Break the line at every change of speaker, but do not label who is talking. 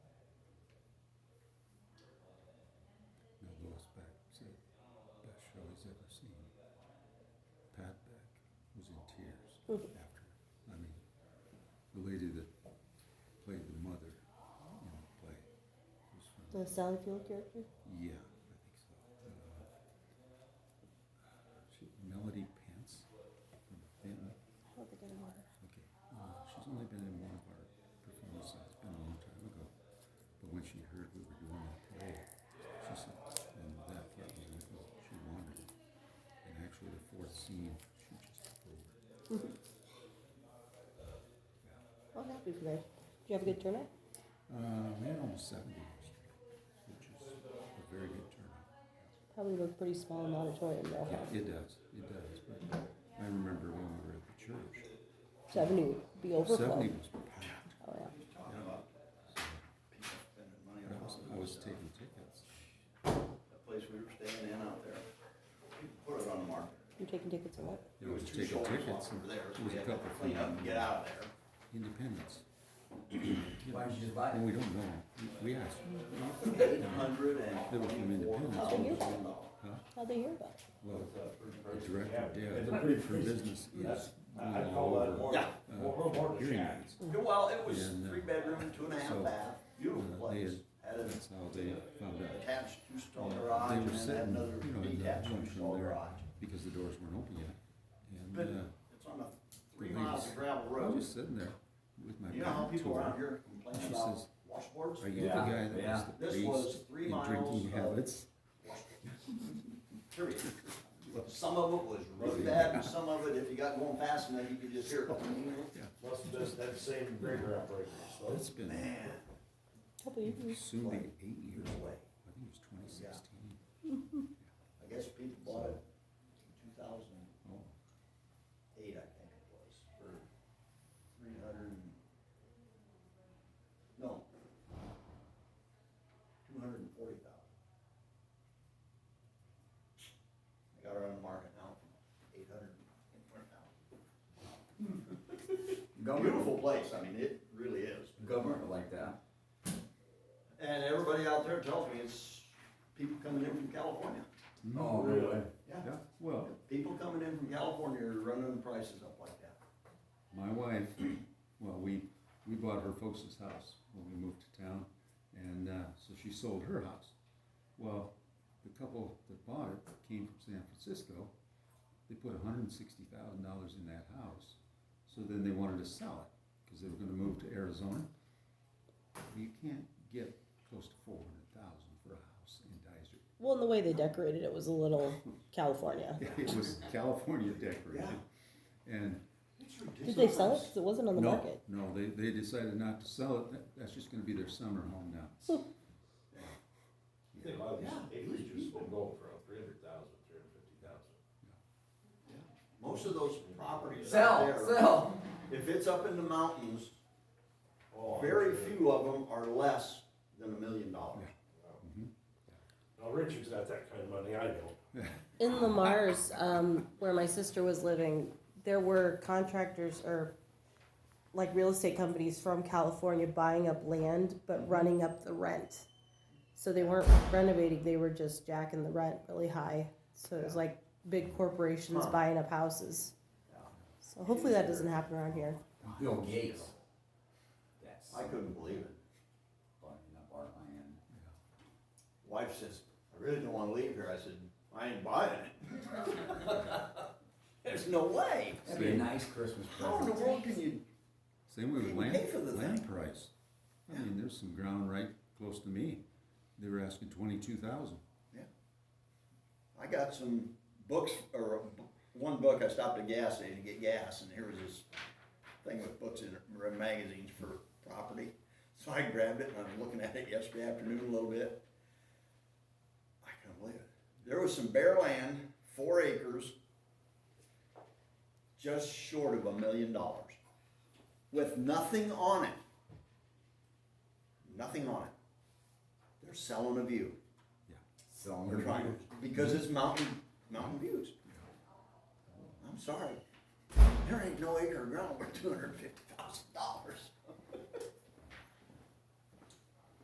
ever seen. Pat Beck was in tears after. I mean, the lady that played the mother in the play was from.
The Sally Field character?
Yeah, I think so. Uh, she, Melody Pence from Benton.
I don't think I know her.
Okay. Uh, she's only been in one of our performances. It's been a long time ago. But when she heard we were doing that play, she said, and that part was in it, she wanted it. And actually, the fourth scene, she just took over.
I'm happy for that. Did you have a good turnout?
Uh, we had almost 70 last year, which is a very good turnout.
Probably looked pretty small in the auditorium though. huh?
Yeah, it does. It does. But I remember when we were at the church,
Seventy would be overflow.
70 was packed.
Oh yeah.
Yeah.
spending money
But I
on
was, I was taking tickets.
that place we were staying in out there. We Put it on the market.
You're taking tickets or what?
It was
two
taking
shoulders
tickets.
over
and
There,
it
so
was a
we had to
couple
clean up and
thousand.
get out of there.
Independence.
Why don't you just buy it?
And we don't know. We- We asked.
Eight hundred and
They were from
twenty-four
Independence.
thousand
How'd they hear about it?
Well, the
dollars.
director did.
It's a pretty
Her business is all
I call that
over.
more,
Yeah.
more,
uh,
more
Hearing
shack.
aids.
Well, it was
And, uh,
three bedroom, two and a
so,
half bath, beautiful
uh, they
place. Had an
That's how they found out.
attached two-stall
They
garage and
were
then had
sitting,
another
you know, in that
detached
lunchroom
two-stall
there
garage.
because the doors weren't open yet. And
But
uh,
it's on a three
they
miles
just-
of
I
gravel
was
road.
just sitting there with my
You know how
back to
people around
her.
here complain
She
about
says,
washboards?
Are you the
Yeah,
guy that was
yeah.
the
This was
priest
three
in
miles
drinking
of-
habits?
Period. Some of it was really bad, and some of it, if you got going fast enough, you could just hear it.
Must have been that same grader operator, so.
That's been
Man,
Couple years.
soon be eight years
no
ago.
way.
I think it was twenty sixteen.
I guess people bought it in two thousand
Oh.
and eight, I think it was, for three hundred and, no, two hundred and forty thousand. They got it on the market now, eight hundred and twenty thousand. Beautiful place, I mean, it really is.
Government like that.
And everybody out there tells me it's people coming in from California.
Oh,
Really?
Yeah.
Mm-hmm. Well,
People coming in from California are running the prices up like that.
my wife, well, we, we bought her folks' house when we moved to town, and, uh, so she sold her house. Well, the couple that bought it came from San Francisco, they put hundred and sixty thousand dollars in that house, so then they wanted to sell it, cause they were gonna move to Arizona. You can't get close to four hundred thousand for a house in Dyser.
Well, and the way they decorated it was a little California.
It was California decorated, and
Did they sell it? Because it wasn't on the
no,
market.
No, they, they decided not to sell it. That, that's just gonna be their summer home now.
They might just, it was just been going for three hundred thousand, three hundred fifty thousand.
Most of those properties out
Sell,
there,
sell.
if it's up in the mountains,
Oh, I'm
very
sure.
few of them are less than a million dollars.
Now, Richard's got that kind of money, I don't.
In Lamar's, um, where my sister was living, there were contractors or like real estate companies from California buying up land but running up the rent. So they weren't renovating, they were just jacking the rent really high. So it was like big corporations
Huh.
buying up houses. So hopefully that doesn't happen around here.
Bill Gates. That's
I couldn't believe it.
buying up our land.
Wife says, I really don't wanna leave here. I said, I ain't buying it. There's no way.
That'd be a
Same.
nice Christmas
How in the
present.
world can you,
Same way with land,
Pay for the
land price. I mean, there's some ground right close to me. They were asking twenty-two thousand.
I got some books, or a bu- one book, I stopped at a gas station to get gas, and here was this thing with books and r- magazines for property. So I grabbed it, and I was looking at it yesterday afternoon a little bit. I couldn't believe it. There was some bare land, four acres, just short of a million dollars, with nothing on it. Nothing on it. They're selling a view.
Selling
They're
the
trying to,
land.
because it's mountain, mountain views. I'm sorry, there ain't no acre of ground worth two hundred and fifty thousand dollars.